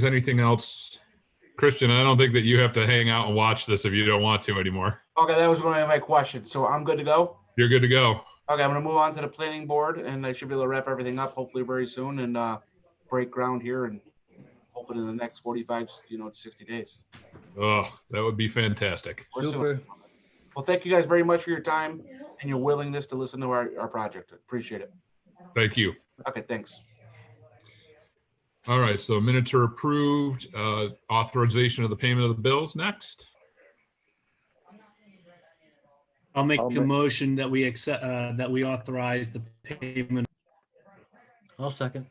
there's anything else, Christian, I don't think that you have to hang out and watch this if you don't want to anymore. Okay, that was one of my questions. So I'm good to go. You're good to go. Okay, I'm gonna move on to the planning board and I should be able to wrap everything up hopefully very soon and, uh, break ground here and open in the next forty-five, you know, to sixty days. Oh, that would be fantastic. or soon. Super. Well, thank you guys very much for your time and your willingness to listen to our, our project. Appreciate it. Thank you. Okay, thanks. All right, so minutes are approved. Uh, Authorization of the payment of the bills next. I'll make I'll a make- motion that we accept, uh, that we authorize the payment. I'll second.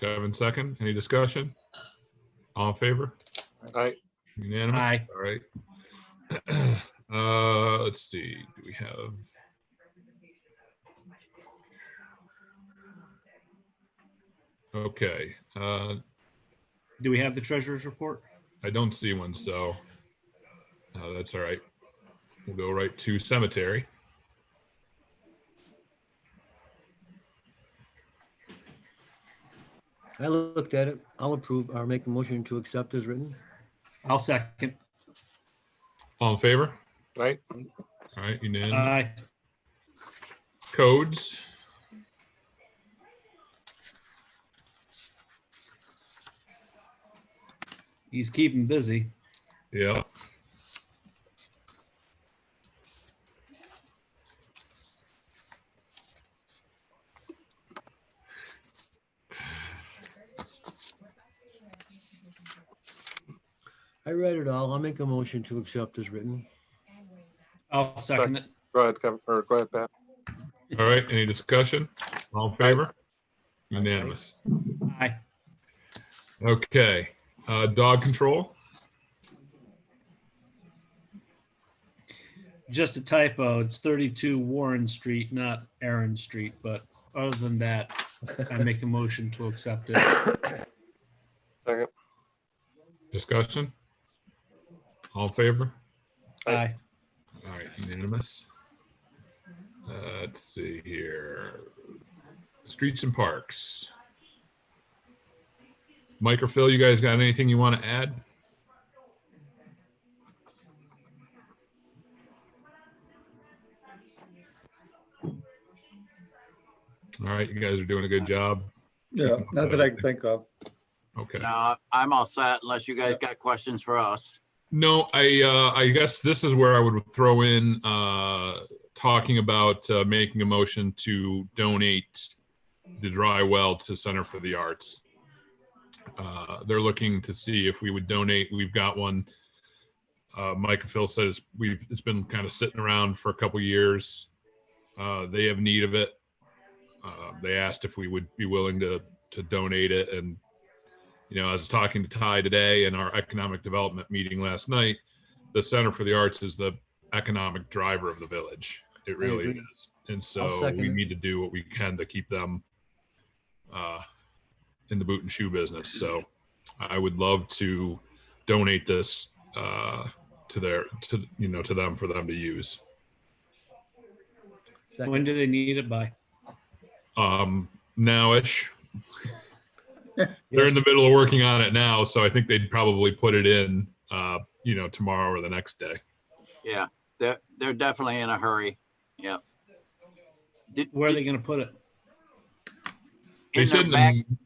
Kevin second. Any discussion? All in favor? Aye. Unanimous? Aye. All right. Uh, let's see, do we have? Okay, uh, Do we have the treasurer's report? I don't see one, so uh, that's all right. We'll go right to cemetery. I looked at it. I'll approve or make a motion to accept as written. I'll second. All in favor? Aye. All right, unanimous. Aye. Codes, He's keeping busy. yeah. I read it all. I'll make a motion to accept as written. I'll second it. Go ahead, Kevin, or go ahead, Pat. All right, any discussion? All in favor? Unanimous. Aye. Okay, uh, dog control. Just a typo. It's thirty-two Warren Street, not Aaron Street, but other than that, I make a motion to accept it. Second. Discussion? All in favor? Aye. All right, unanimous. Uh, Let's see here. Streets and parks. Mike or Phil, you guys got anything you want to add? All right, you guys are doing a good job. Yeah, not that I can think of. Okay. No, I'm all set unless you guys got questions for us. No, I, uh, I guess this is where I would throw in, uh, talking about, uh, making a motion to donate the dry well to Center for the Arts. Uh, they're looking to see if we would donate. We've got one. Uh, Mike and Phil said it's, we've, it's been kind of sitting around for a couple years. Uh, they have need of it. Uh, they asked if we would be willing to, to donate it and you know, I was talking to Ty today in our economic development meeting last night. The Center for the Arts is the economic driver of the village. It really agree. is. And I'll so second we it. need to do what we can to keep them uh, in the boot and shoe business. So I would love to donate this uh, to their, to, you know, to them for them to use. Second. When do they need it by? Um, nowish, they're in the middle of working on it now. So I think they'd probably put it in, uh, you know, tomorrow or the next day. Yeah, they're, they're definitely in a hurry. Yeah. Did, Where are did- they gonna put it? They in said, their in back, the-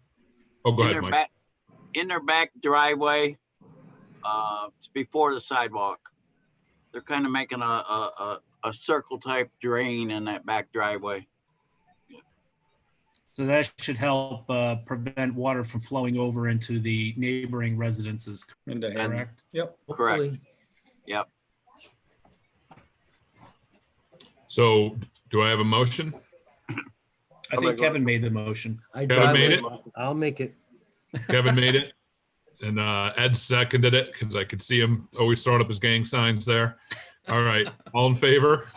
oh, go in ahead, their Mike. back, in their back driveway, uh, it's before the sidewalk. They're kind of making a, a, a, a circle type drain in that back driveway. So that should help uh, prevent water from flowing over into the neighboring residences, in the hand. correct? correct. Hopefully. So do I have a motion? I think Kevin made the motion. I Kevin I made would- it. I'll make it. Kevin made it. And uh, Ed seconded it because I could see him always throwing up his gang signs there. All right, all in favor?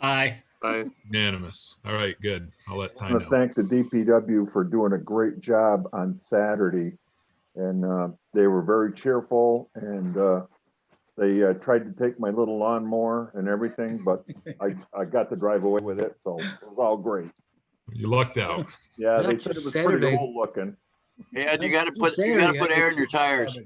Aye. Aye. Unanimous. All right, good. I'll let I Ty want know. to thank the DPW for doing a great job on Saturday. And uh, they were very cheerful and uh, they uh, tried to take my little lawnmower and everything, but I, I got to drive away with it, so it was all great. You lucked out. Yeah, they That's said it was Saturday. pretty old looking. Yeah, and you gotta put, you Saying, gotta I put air in your just- tires.